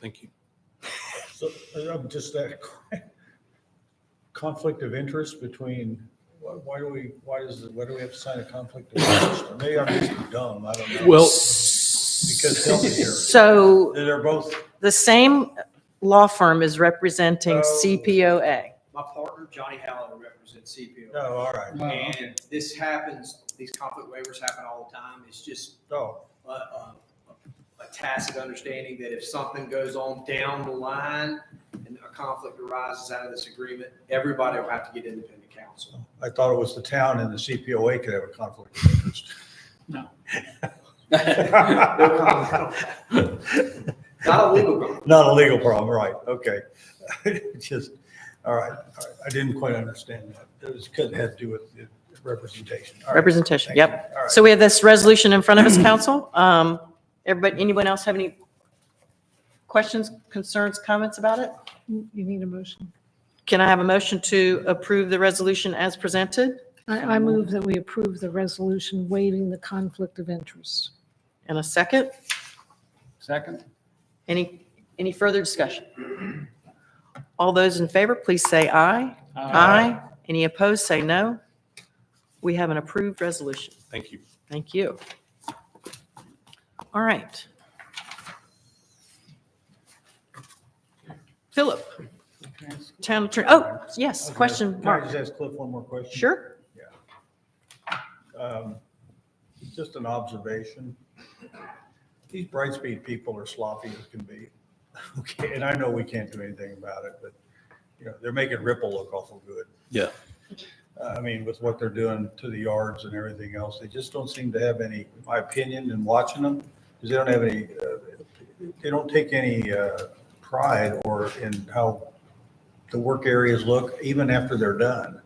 Thank you. So, uh, I'm just that conflict of interest between, why- why do we, why does, why do we have to sign a conflict of interest? Or Maybe I'm just dumb, I don't know. Well, Because they'll be here. So They're both, the same law firm is representing Oh. CPOA. My partner, Johnny Howell, represents CPO. no, all right, And this happens, these conflict waivers happen all the time. It's just no, a, a, a tacit understanding that if something goes on down the line and a conflict arises out of this agreement, everybody will have to get independent counsel. I thought it was the town and the CPOA could have a conflict of interest. No comment on that. Not a legal problem. Not a legal problem, right, okay. It's Just, all right, all right, I didn't quite understand that. It was, could have to do with the representation. All right, Representation, thank you. yep. All right. So we have this resolution in front of us, council. Um, Everybody, anyone else have any questions, concerns, comments about it? You need a motion. Can I have a motion to approve the resolution as presented? I, I move that we approve the resolution waiving the conflict of interest. And a second? Second? Any, any further discussion? All those in favor, please say aye. Aye. Any opposed, say no. We have an approved resolution. thank you. Thank you. All right. Philip, town attorney, oh, yes, question, Can I Mark. just ask Cliff one more question? Sure, um, Just an observation. These Brightspeed people are sloppy as can be. Okay, and I know we can't do anything about it, but, you know, they're making Ripple look awful good. Yeah. Uh, I mean, with what they're doing to the yards and everything else, they just don't seem to have any, my opinion in watching them, because they don't have any, uh, they don't take any uh, pride or in how the work areas look even after they're done.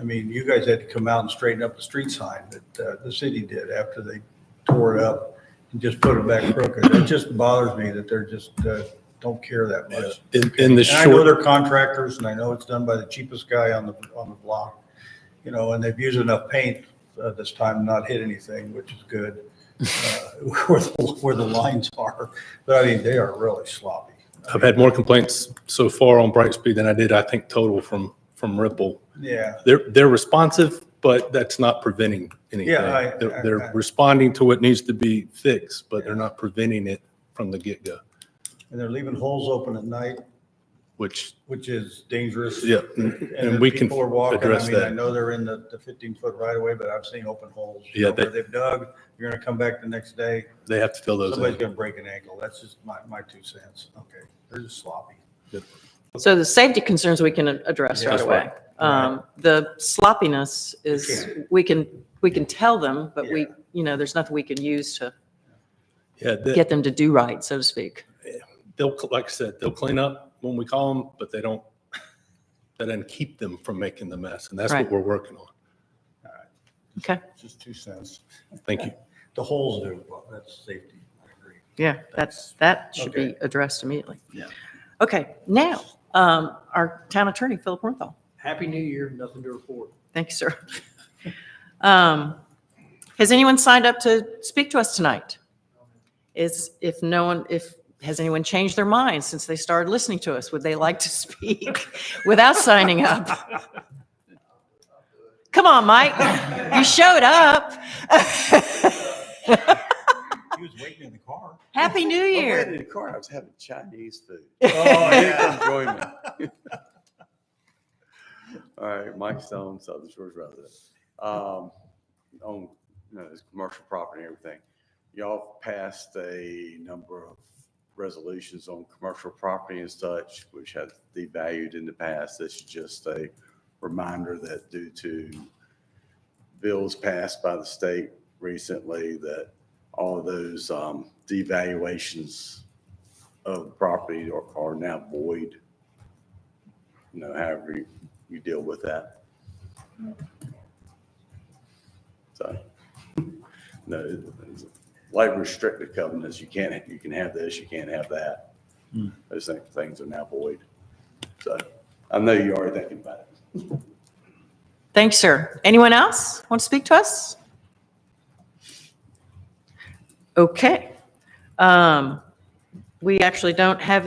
I mean, you guys had to come out and straighten up the street sign that uh, the city did after they tore it up and just put it back crooked. It just bothers me that they're just, uh, don't care that much. In, in the Uh, And I know short, they're contractors and I know it's done by the cheapest guy on the, on the block, you know, and they've used enough paint uh, this time to not hit anything, which is good. uh, Where, the- where the lines are, but I mean, they are really sloppy. I've had more complaints so far on Brightspeed than I did, I think, total from, from Ripple. Yeah, They're, they're responsive, but that's not preventing anything. Yeah, I- They're, I- they're I- responding to what needs to be fixed, but they're not preventing it from the get-go, and they're leaving holes open at night, which, which is dangerous. yeah, and- and we the can people are walking. address I mean, I that. know they're in the, the fifteen foot right away, but I've seen open holes. you Yeah, know, Where they- they've dug, you're gonna come back the next day, They have to fill those somebody's in. gonna break an ankle. That's just my, my two cents. Okay, they're just sloppy. so the safety concerns we can address right Yeah. away. Um, The sloppiness is, we can, we can tell them, but we, Yeah. you know, there's nothing we can use to Yeah, they, get them to do right, so to speak. they'll, like I said, they'll clean up when we call them, but they don't, that doesn't keep them from making the mess, and that's what Right. we're working on. Okay, Just two cents. Thank you. The holes do, well, that's safety. I agree. yeah, that's, that should be Okay. addressed immediately. Yeah. Okay, now, um, our town attorney, Philip Hornthal. Happy New Year, nothing to report. Thank you, sir. Um, Has anyone signed up to speak to us tonight? Is, if no one, if, has anyone changed their mind since they started listening to us? Would they like to speak without signing up? Come on, Mike, you showed up. He was waiting in the car. Happy New Well, when Year. in the car, I was having Chinese food. Oh, Enjoyment. All right, Mike Stone, Southern Shores resident. Um, on, you know, this commercial property and everything. Y'all passed a number of resolutions on commercial property and such, which has devalued in the past. This is just a reminder that due to bills passed by the state recently, that all of those, um, devaluations of the property are, are now void. You know, however you, you deal with that. So, no, it's- like restrictive covenants, you can't, you can have this, you can't have that. Those thi- things are now void. So I know you are thinking about it. Thanks, sir. Anyone else want to speak to us? Okay. Um, we actually don't have